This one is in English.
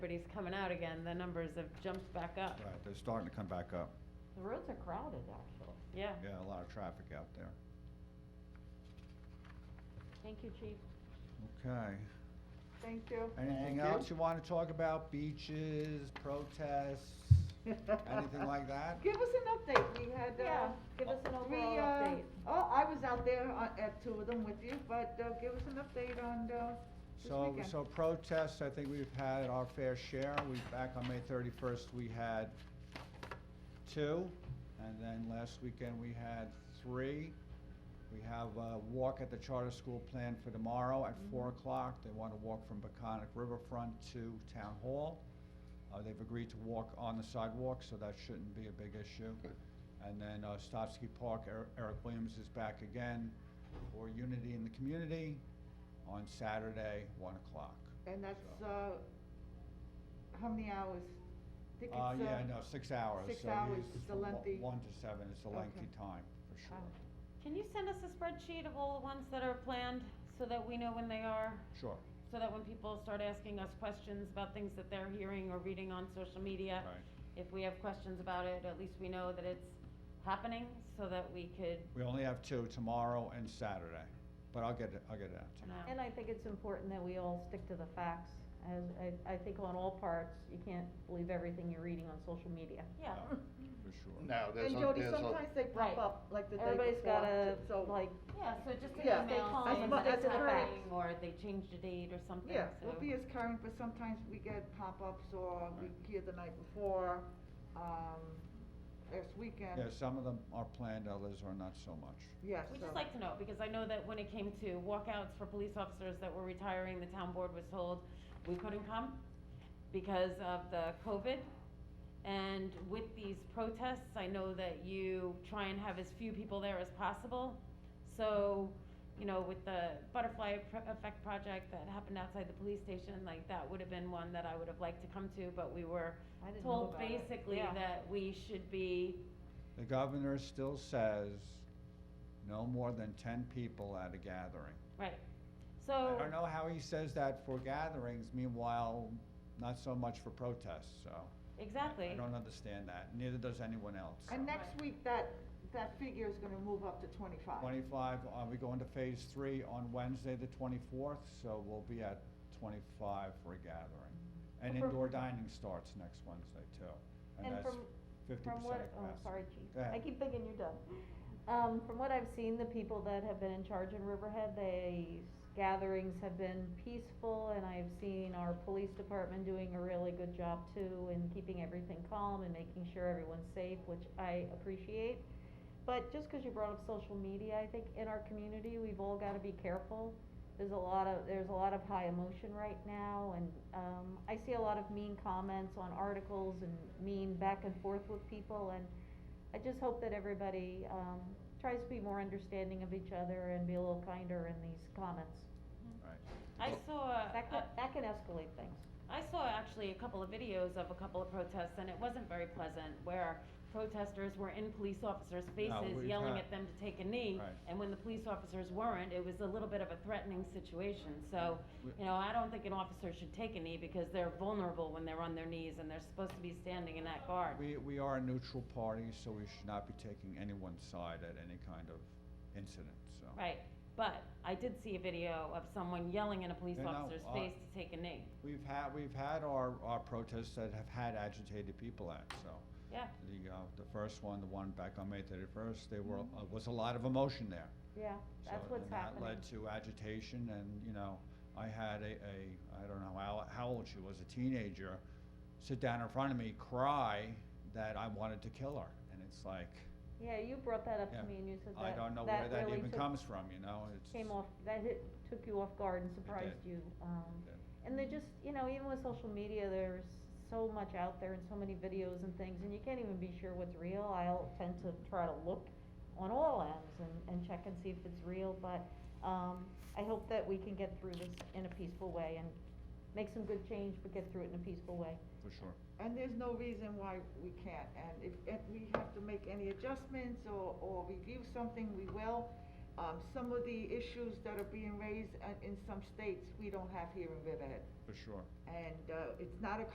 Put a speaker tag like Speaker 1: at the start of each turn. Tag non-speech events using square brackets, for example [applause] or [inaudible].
Speaker 1: everybody's coming out again, the numbers have jumped back up.
Speaker 2: Right, they're starting to come back up.
Speaker 3: The roads are crowded, actually.
Speaker 1: Yeah,
Speaker 2: Yeah, a lot of traffic out there.
Speaker 1: thank you, chief.
Speaker 2: Okay.
Speaker 3: Thank you.
Speaker 2: Anything
Speaker 4: Thank you.
Speaker 2: else you want to talk about? Beaches, protests, anything
Speaker 3: [laughs]
Speaker 2: like that?
Speaker 3: Give us an update, we had, uh.
Speaker 1: Yeah, give us an
Speaker 3: we,
Speaker 1: overall
Speaker 3: uh,
Speaker 1: update.
Speaker 3: Oh, I was out there on- at two of them with you, but, uh, give us an update on, uh, this
Speaker 2: So,
Speaker 3: weekend.
Speaker 2: so protests, I think we've had our fair share. We, back on May thirty-first, we had two, and then last weekend we had three. We have a walk at the charter school planned for tomorrow
Speaker 3: Mm-hmm.
Speaker 2: at four o'clock. They want to walk from Peconic Riverfront to Town Hall. Uh, they've agreed to walk on the sidewalk, so that shouldn't be a big issue. And then, uh, Stotsky Park, Er- Eric Williams is back again for Unity in the Community on Saturday, one o'clock.
Speaker 3: And that's, uh, how many hours? I think
Speaker 2: Uh,
Speaker 3: it's,
Speaker 2: yeah, no, six hours.
Speaker 3: six
Speaker 2: so
Speaker 3: hours
Speaker 2: it's
Speaker 3: is a
Speaker 2: from one-
Speaker 3: lengthy-
Speaker 2: One to seven, it's a
Speaker 3: Okay.
Speaker 2: lengthy time, for sure.
Speaker 1: Can you send us a spreadsheet of all the ones that are planned, so that we know when they are?
Speaker 2: Sure,
Speaker 1: So that when people start asking us questions about things that they're hearing or reading on social media,
Speaker 2: right.
Speaker 1: if we have questions about it, at least we know that it's happening, so that we could
Speaker 2: We only have two, tomorrow and Saturday, but I'll get it, I'll get it out to you.
Speaker 1: know.
Speaker 5: And I think it's important that we all stick to the facts, as, I, I think on all parts, you can't believe everything you're reading on social media.
Speaker 1: Yeah,
Speaker 2: Uh, For sure.
Speaker 4: No, there's,
Speaker 3: And
Speaker 4: a-
Speaker 3: Jody,
Speaker 4: there's a-
Speaker 3: sometimes they pop
Speaker 5: Right.
Speaker 3: up like the day before.
Speaker 5: Everybody's gotta,
Speaker 3: so-
Speaker 5: like,
Speaker 1: yeah, so just an
Speaker 3: Yeah.
Speaker 1: email
Speaker 3: As
Speaker 1: saying
Speaker 3: mu-
Speaker 1: that it's
Speaker 3: as it
Speaker 1: happening, or they changed the date or something,
Speaker 3: Yeah,
Speaker 1: so.
Speaker 3: we'll be as current, but sometimes we get pop-ups or we
Speaker 2: Right.
Speaker 3: hear the night before, um, this weekend.
Speaker 2: Yeah, some of them are planned, others are not so much.
Speaker 3: Yes,
Speaker 1: We'd
Speaker 3: so-
Speaker 1: just like to know, because I know that when it came to walkouts for police officers that were retiring, the town board was told we couldn't come because of the COVID. And with these protests, I know that you try and have as few people there as possible. So, you know, with the butterfly Pro- effect project that happened outside the police station, like that would have been one that I would have liked to come to, but we were
Speaker 5: I didn't know
Speaker 1: told
Speaker 5: about it.
Speaker 1: basically
Speaker 5: Yeah.
Speaker 1: that we should be,
Speaker 2: The governor still says no more than ten people at a gathering.
Speaker 1: right, so.
Speaker 2: I don't know how he says that for gatherings, meanwhile, not so much for protests, so. I-
Speaker 1: Exactly.
Speaker 2: I don't understand that, neither does anyone else.
Speaker 3: And
Speaker 2: so.
Speaker 3: next week, that, that figure is gonna move up to twenty-five.
Speaker 2: Twenty-five, uh, we go into phase three on Wednesday, the twenty-fourth, so we'll be at twenty-five for a gathering. And
Speaker 5: But for-
Speaker 2: indoor dining starts next Wednesday too, and
Speaker 5: And
Speaker 2: that's
Speaker 5: from-
Speaker 2: fifty percent
Speaker 5: From
Speaker 2: of
Speaker 5: what,
Speaker 2: capacity.
Speaker 5: oh, sorry, chief,
Speaker 2: Go ahead.
Speaker 5: I keep thinking you're done. Um, from what I've seen, the people that have been in charge in Riverhead, they, gatherings have been peaceful, and I've seen our police department doing a really good job too, in keeping everything calm and making sure everyone's safe, which I appreciate. But just cause you brought up social media, I think in our community, we've all gotta be careful. There's a lot of, there's a lot of high emotion right now, and, um, I see a lot of mean comments on articles and mean back and forth with people, and I just hope that everybody, um, tries to be more understanding of each other and be a little kinder in these comments.
Speaker 2: Right. Oh.
Speaker 1: I saw,
Speaker 5: That can,
Speaker 1: uh,
Speaker 5: that can escalate things.
Speaker 1: I saw actually a couple of videos of a couple of protests, and it wasn't very pleasant, where protesters were in police officers' faces
Speaker 2: we've
Speaker 1: yelling
Speaker 2: had-
Speaker 1: at them to take a knee.
Speaker 2: Right.
Speaker 1: And when the police officers weren't, it was a little bit of a threatening situation, so,
Speaker 2: We-
Speaker 1: you know, I don't think an officer should take a knee, because they're vulnerable when they're on their knees, and they're supposed to be standing in that guard.
Speaker 2: We, we are a neutral party, so we should not be taking anyone's side at any kind of incident, so.
Speaker 1: Right, but I did see a video of someone yelling in a police
Speaker 2: Yeah, no,
Speaker 1: officer's
Speaker 2: I-
Speaker 1: face to take a knee,
Speaker 2: We've had, we've had our, our protests that have had agitated people at, so.
Speaker 1: yeah.
Speaker 2: The, uh, the first one, the one back on May thirty-first, there were,
Speaker 5: Mm-hmm.
Speaker 2: uh, was a lot of emotion there.
Speaker 5: Yeah, that's
Speaker 2: So,
Speaker 5: what's happening.
Speaker 2: And that led to agitation and, you know, I had a, a, I don't know how, how old she was, a teenager, sit down in front of me, cry that I wanted to kill her. And it's like,
Speaker 5: Yeah, you brought that up
Speaker 2: Yeah.
Speaker 5: to me and you said
Speaker 2: I
Speaker 5: that,
Speaker 2: don't know where
Speaker 5: that
Speaker 2: that
Speaker 5: really
Speaker 2: even
Speaker 5: took,
Speaker 2: comes from, you know, it's.
Speaker 5: came off, that hit, took you off guard and surprised
Speaker 2: did.
Speaker 5: you, um.
Speaker 2: did.
Speaker 5: And they're just, you know, even with social media, there's so much out there and so many videos and things, and you can't even be sure what's real. I'll tend to try to look on all ends and, and check and see if it's real, but, um, I hope that we can get through this in a peaceful way and make some good change, but get through it in a peaceful way.
Speaker 2: For sure.
Speaker 3: And there's no reason why we can't, and if, if we have to make any adjustments or, or review something, we will. Um, some of the issues that are being raised uh, in some states, we don't have here in Riverhead.
Speaker 2: For sure.
Speaker 3: And, uh, it's not a